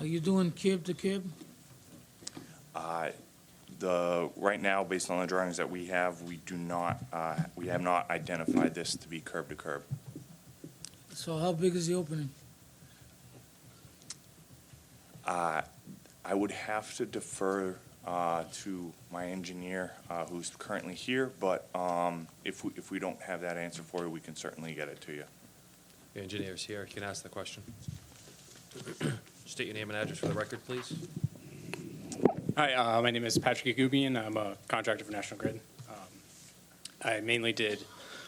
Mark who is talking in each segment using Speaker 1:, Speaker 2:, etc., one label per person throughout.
Speaker 1: Are you doing curb to curb?
Speaker 2: Uh, The, right now, based on the drawings that we have, we do not, uh, we have not identified this to be curb to curb.
Speaker 1: So how big is the opening?
Speaker 2: Uh, I would have to defer uh, to my engineer, uh, who's currently here, but um, if, we- if we don't have that answer for you, we can certainly get it to you.
Speaker 3: Your engineer's here, he can ask the question. State your name and address for the record, please.
Speaker 4: Hi, uh, my name is Patrick Agubian. I'm a contractor for National Grid. Um, I mainly did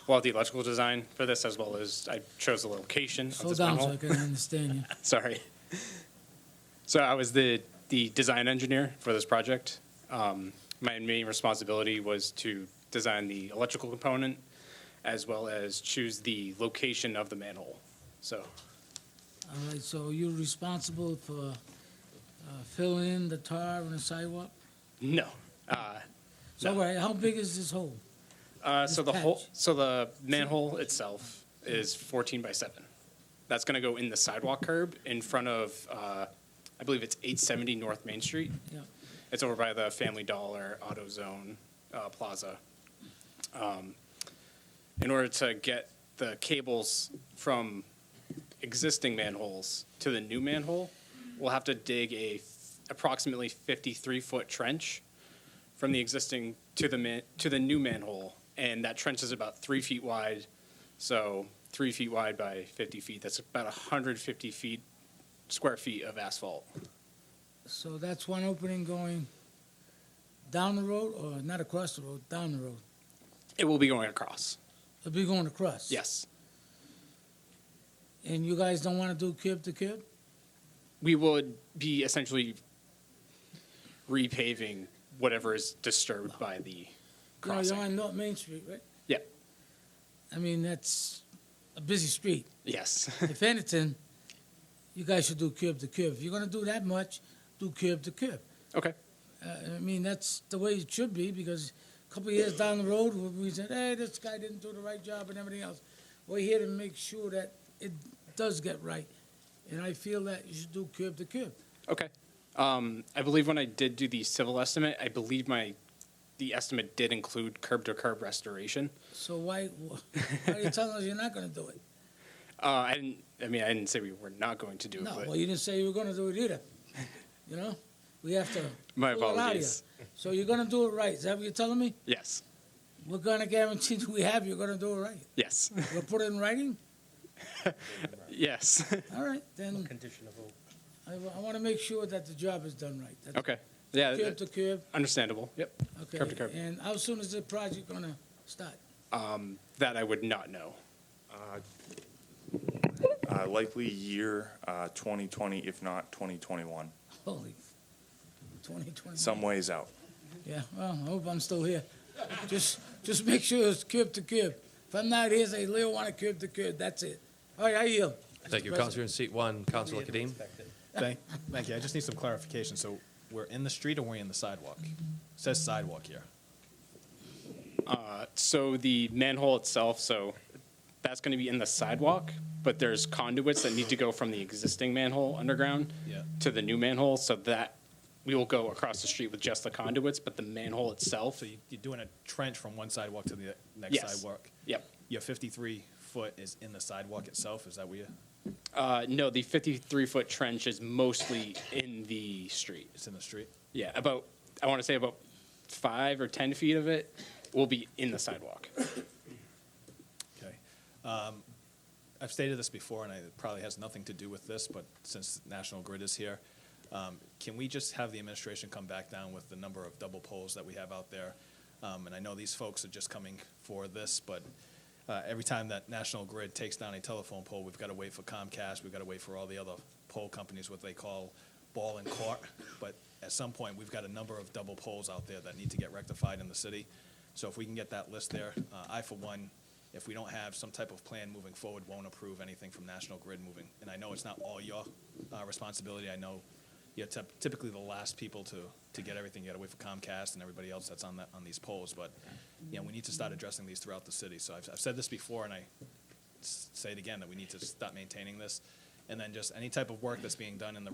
Speaker 4: a lot of the electrical design for this, as well as I chose the location of
Speaker 1: Slow
Speaker 4: this
Speaker 1: down so I
Speaker 4: manhole.
Speaker 1: can understand you.
Speaker 4: Sorry. So I was the, the design engineer for this project. Um, My main responsibility was to design the electrical component, as well as choose the location of the manhole. So,
Speaker 1: All right, so you're responsible for uh, filling in the tar and the sidewalk?
Speaker 4: no. Uh,
Speaker 1: So, all
Speaker 4: No.
Speaker 1: right, how big is this hole?
Speaker 4: Uh, so
Speaker 1: This
Speaker 4: the whole,
Speaker 1: patch.
Speaker 4: so the manhole itself is 14 by 7. That's going to go in the sidewalk curb in front of, uh, I believe it's 870 North Main Street.
Speaker 1: Yeah.
Speaker 4: It's over by the Family Dollar AutoZone uh, Plaza. Um, in order to get the cables from existing manholes to the new manhole, we'll have to dig a f- approximately 53 foot trench from the existing to the man, to the new manhole, and that trench is about three feet wide. So three feet wide by 50 feet. That's about 150 feet square feet of asphalt.
Speaker 1: So that's one opening going down the road, or not across the road, down the road?
Speaker 4: It will be going across.
Speaker 1: It'll be going across?
Speaker 4: Yes,
Speaker 1: And you guys don't want to do curb to curb?
Speaker 4: we would be essentially repaving whatever is disturbed by the
Speaker 1: You know, You're
Speaker 4: crossing.
Speaker 1: on North Main Street, right?
Speaker 4: Yeah.
Speaker 1: I mean, that's a busy street.
Speaker 4: Yes,
Speaker 1: If anything, you guys should do curb to curb. If you're gonna do that much, do curb to curb.
Speaker 4: okay,
Speaker 1: Uh, I mean, that's the way it should be, because a couple of years down the road, we- we said, hey, this guy didn't do the right job and everything else. We're here to make sure that it does get right, and I feel that you should do curb to curb.
Speaker 4: okay. Um, I believe when I did do the civil estimate, I believe my, the estimate did include curb to curb restoration.
Speaker 1: So why, why are you telling us you're not gonna do it?
Speaker 4: Uh, I didn't. I mean, I didn't say we were not going to do it.
Speaker 1: No,
Speaker 4: but
Speaker 1: well, you didn't say you were gonna do it either, you know? We have to.
Speaker 4: my
Speaker 1: pull it out of you.
Speaker 4: apologies.
Speaker 1: So you're gonna do it right, is that what you're telling me?
Speaker 4: Yes,
Speaker 1: We're gonna guarantee that we have, you're gonna do it right.
Speaker 4: yes,
Speaker 1: We'll put it in writing?
Speaker 4: yes.
Speaker 1: All right, then. Condition of vote. I, want to make sure that the job is done right. That's
Speaker 4: okay. Yeah.
Speaker 1: Curb
Speaker 4: that-
Speaker 1: to curb,
Speaker 4: understandable. Yep.
Speaker 1: okay.
Speaker 4: curb to curb.
Speaker 1: And how soon is the project gonna start?
Speaker 4: Um, that I would not know.
Speaker 2: Uh, Likely year uh, 2020, if not 2021,
Speaker 1: Holy, twenty twenty.
Speaker 2: some ways out.
Speaker 1: Yeah, well, I hope I'm still here. Just, just make sure it's curb to curb. If I'm not here, say, Leo, want to curb to curb, that's it. All right, I yield.
Speaker 3: Thank you,
Speaker 1: Mr.
Speaker 3: Counselor in seat one, Counselor Kadim.
Speaker 5: Thank, thank you. I just need some clarification. So we're in the street or we're in the sidewalk? It says sidewalk here.
Speaker 4: Uh, so the manhole itself. So that's going to be in the sidewalk, but there's conduits that need to go from the existing manhole underground
Speaker 5: Yeah.
Speaker 4: to the new manhole. So that we will go across the street with just the conduits, but the manhole itself.
Speaker 5: So you- you're doing a trench from one sidewalk to the next
Speaker 4: Yes.
Speaker 5: sidewalk.
Speaker 4: Yep.
Speaker 5: Your 53 foot is in the sidewalk itself. Is that where you,
Speaker 4: Uh, no, the 53 foot trench is mostly in the street.
Speaker 5: it's in the street?
Speaker 4: Yeah, about I want to say about five or ten feet of it will be in the sidewalk.
Speaker 5: Okay. Um, I've stated this before, and I- it probably has nothing to do with this, but since National Grid is here, um, can we just have the administration come back down with the number of double poles that we have out there? Um, And I know these folks are just coming for this, but uh, every time that National Grid takes down a telephone pole, we've got to wait for Comcast, we've got to wait for all the other pole companies, what they call ball and court. But at some point, we've got a number of double poles out there that need to get rectified in the city. So if we can get that list there, uh, I, for one, if we don't have some type of plan moving forward, won't approve anything from National Grid moving. And I know it's not all your uh, responsibility. I know you're typ- typically the last people to, to get everything. You got to wait for Comcast and everybody else that's on that, on these polls. But, you know, we need to start addressing these throughout the city. So I've, I've said this before, and I s- say it again, that we need to stop maintaining this. And then just any type of work that's being done in the